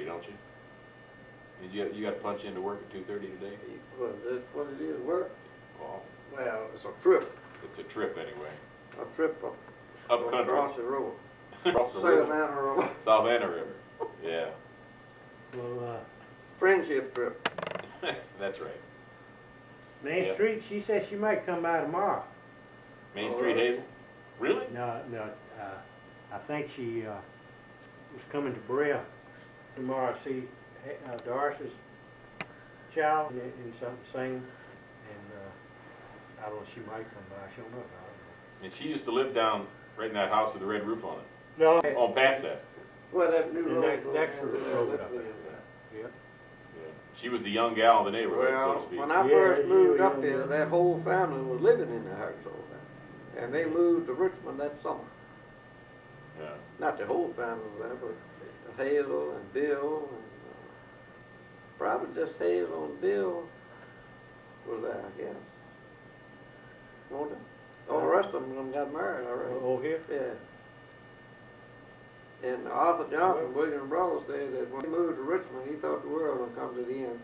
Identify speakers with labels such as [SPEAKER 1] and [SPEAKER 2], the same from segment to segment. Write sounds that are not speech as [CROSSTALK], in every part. [SPEAKER 1] punching? And you got, you got to punch into work at two thirty today?
[SPEAKER 2] Well, that's what it is, work.
[SPEAKER 1] Well,
[SPEAKER 2] Well, it's a trip,
[SPEAKER 1] it's a trip anyway.
[SPEAKER 2] a trip up.
[SPEAKER 1] Up
[SPEAKER 2] Across
[SPEAKER 1] country.
[SPEAKER 2] the road.
[SPEAKER 1] [LAUGHS] Across the river.
[SPEAKER 2] Savannah Road,
[SPEAKER 1] Savannah River. Yeah, [LAUGHS]
[SPEAKER 3] Well, uh,
[SPEAKER 2] friendship trip.
[SPEAKER 1] that's right.
[SPEAKER 3] Main
[SPEAKER 1] Yeah.
[SPEAKER 3] Street, she said she might come by tomorrow.
[SPEAKER 1] Main
[SPEAKER 2] Oh,
[SPEAKER 1] Street
[SPEAKER 2] really?
[SPEAKER 1] Hazel? Really?
[SPEAKER 3] No, no, uh, I think she, uh, was coming to Brea tomorrow, to see, uh, Doris's child and, and something sing, and, uh, I don't know, she might come by, she'll know, I
[SPEAKER 1] And she used to live down right in that house with the red roof on it.
[SPEAKER 3] don't know. No,
[SPEAKER 1] On past that.
[SPEAKER 2] Well, that new
[SPEAKER 3] The
[SPEAKER 2] road.
[SPEAKER 3] next-
[SPEAKER 2] goes
[SPEAKER 3] next
[SPEAKER 2] down to
[SPEAKER 3] road
[SPEAKER 2] that
[SPEAKER 3] up
[SPEAKER 2] little
[SPEAKER 3] there.
[SPEAKER 2] bit.
[SPEAKER 3] yeah,
[SPEAKER 1] Yeah. She was the young gal in the neighborhood, so to
[SPEAKER 2] Well,
[SPEAKER 1] speak.
[SPEAKER 2] when I
[SPEAKER 3] Yeah,
[SPEAKER 2] first
[SPEAKER 3] yeah,
[SPEAKER 2] moved
[SPEAKER 3] yeah,
[SPEAKER 2] up here,
[SPEAKER 3] yeah.
[SPEAKER 2] that whole family was living in the house over there. And they moved to Richmond that summer.
[SPEAKER 1] Yeah.
[SPEAKER 2] Not the whole family was there, but Hazel and Bill and, uh, probably just Hazel and Bill was there, I guess. Won't they? All the rest of them got married already.
[SPEAKER 3] oh, here,
[SPEAKER 2] Yeah. And Arthur Johnson, William Brother, said that when he moved to Richmond, he thought the world would come to the end.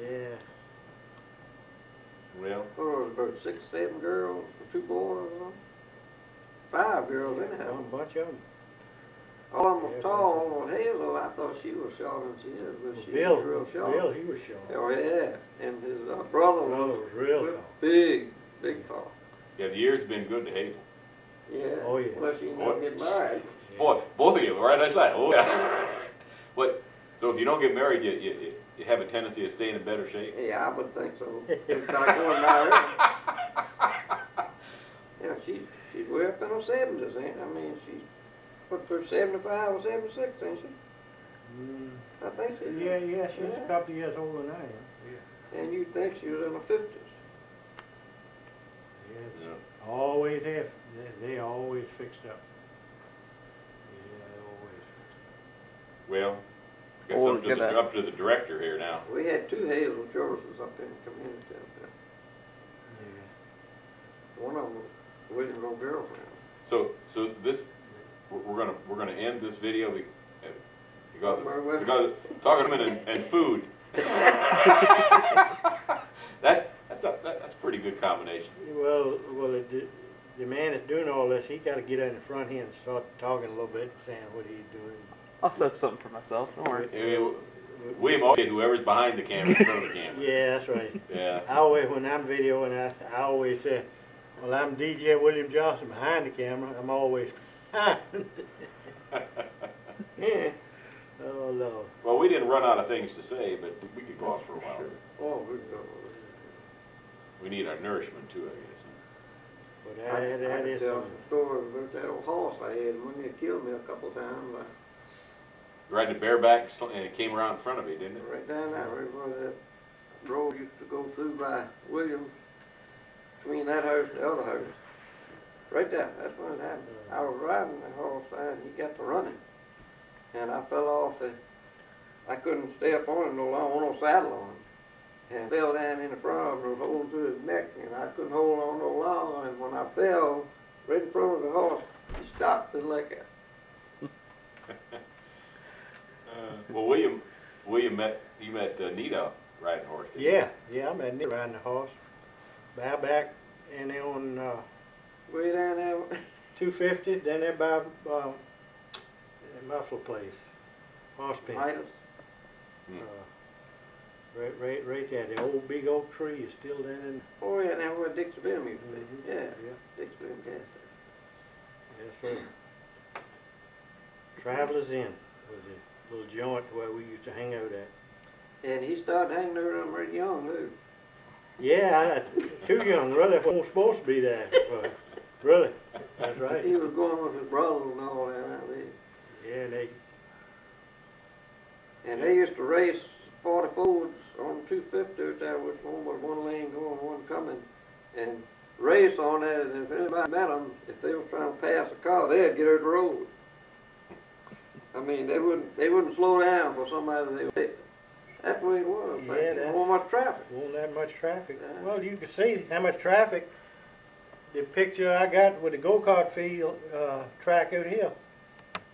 [SPEAKER 3] yeah.
[SPEAKER 1] Well,
[SPEAKER 2] Well, there Oh, was about six, seven girls, two boys, huh? five girls anyhow.
[SPEAKER 3] One bunch of them.
[SPEAKER 2] All of them was Oh, tall. Well, Hazel, I thought she was shorter than she is, but she
[SPEAKER 3] Bill,
[SPEAKER 2] was real short.
[SPEAKER 3] Bill, he was short.
[SPEAKER 2] Oh yeah, and his uh, brother
[SPEAKER 3] Brother
[SPEAKER 2] was
[SPEAKER 3] was real tall.
[SPEAKER 2] big, big tall.
[SPEAKER 1] yeah, the year's been good to Hazel.
[SPEAKER 2] Yeah.
[SPEAKER 3] Oh, yeah.
[SPEAKER 2] Well, she
[SPEAKER 1] Boy.
[SPEAKER 2] never get married.
[SPEAKER 3] [LAUGHS]
[SPEAKER 1] Boy, both of you, right? That's that. Oh, yeah. [LAUGHS] what? So if you don't get married, you, you, you- you have a tendency to stay in better shape.
[SPEAKER 2] Yeah, I would think
[SPEAKER 3] [LAUGHS]
[SPEAKER 2] so. It's not going nowhere. Yeah, she, she's way up in her seventies, ain't I mean, she's, what, for seventy-five or seventy-six, ain't she?
[SPEAKER 3] Mm,
[SPEAKER 2] I think she.
[SPEAKER 3] Yeah, yeah, she was a couple years older than I am.
[SPEAKER 2] And you'd think she was in her fifties.
[SPEAKER 3] Yes.
[SPEAKER 1] Yeah.
[SPEAKER 3] Always have, they, they always fixed up. Yeah, they always fixed
[SPEAKER 1] Well, I guess
[SPEAKER 2] Oh,
[SPEAKER 1] up, to
[SPEAKER 2] get
[SPEAKER 1] the,
[SPEAKER 2] that.
[SPEAKER 1] up to the director here now.
[SPEAKER 2] We had two Hazel Jeffersons up in the community up there.
[SPEAKER 3] up. Yeah.
[SPEAKER 2] One of them was William's little girlfriend.
[SPEAKER 1] So, so this we're, we're gonna we're gonna end this video be- uh, because
[SPEAKER 2] Where- where-
[SPEAKER 1] of, because of talking about and, and
[SPEAKER 2] [LAUGHS]
[SPEAKER 1] food. that that's a that, that's a pretty good combination.
[SPEAKER 3] Well, well, it, did- the man that's doing all this, he gotta get on the front here and start talking a little bit, saying what he's doing.
[SPEAKER 4] I'll set up something for myself. Don't worry.
[SPEAKER 1] Yeah, William, always get whoever's behind the camera, in front of the camera.
[SPEAKER 3] Yeah, that's [LAUGHS] right.
[SPEAKER 1] Yeah. [LAUGHS]
[SPEAKER 3] I always, when I'm videoing, I, I always say, well, I'm DJ William Johnson behind the camera, I'm always [LAUGHS] behind. Yeah. Oh, Lord.
[SPEAKER 1] Well, we didn't run out of things to say, but we could go on for a while.
[SPEAKER 2] Oh, we go.
[SPEAKER 1] We need our nourishment too, I guess.
[SPEAKER 3] But
[SPEAKER 2] I I
[SPEAKER 3] that, that
[SPEAKER 2] could
[SPEAKER 3] is
[SPEAKER 2] tell
[SPEAKER 3] something.
[SPEAKER 2] some stories about that old horse I had, and when they killed me a couple times, I
[SPEAKER 1] Riding a bareback, sl- and it came around in front of you, didn't it?
[SPEAKER 2] Right down there, right where that road used to go through by Williams, between that house and the other house. Right there, that's when it happened. I was riding the horse and he got to running. And I fell off and I couldn't stay up on him no longer, no saddle on him. And fell down in the front of him, and was holding to his neck and I couldn't hold on no longer. And when I fell, right in front of the horse, he stopped and like that.
[SPEAKER 1] Uh, Well, William, William met you met uh, Nita riding horse. didn't you?
[SPEAKER 3] Yeah, yeah, I'm at Nick riding the horse. Buy back and then on uh,
[SPEAKER 2] Way down there, [LAUGHS]
[SPEAKER 3] two fifty, then they buy uh the muffler place. Horse pen. Uh,
[SPEAKER 2] Midas.
[SPEAKER 1] Hmm.
[SPEAKER 3] right right right there. The old big oak tree is still there in
[SPEAKER 2] Oh yeah, now where Dick's Venom used to be. Yeah,
[SPEAKER 3] Mm-hmm. yeah.
[SPEAKER 2] Dick's Venom gas station.
[SPEAKER 3] Yes, sir. Travelers Inn was a little joint where we used to hang out at.
[SPEAKER 2] And he started hanging around right young, too.
[SPEAKER 3] Yeah, I, too young, really. I wasn't supposed to be there. But really,
[SPEAKER 2] [LAUGHS]
[SPEAKER 3] that's right.
[SPEAKER 2] He was going with his brother and all that, I believe.
[SPEAKER 3] Yeah, they
[SPEAKER 2] And they used to race forty fords on two fifty out there, which one was one lane going, one coming, and race on that, and if anybody met them, if they was trying to pass a car, they'd get out the road. I mean, they wouldn't, they wouldn't slow down for somebody they would hit. That's the way it was,
[SPEAKER 3] Yeah,
[SPEAKER 2] back then.
[SPEAKER 3] that's-
[SPEAKER 2] There wasn't much traffic.
[SPEAKER 3] Won't that much traffic.
[SPEAKER 2] Yeah.
[SPEAKER 3] Well, you can see how much traffic. The picture I got with the go-kart field, uh, track out here,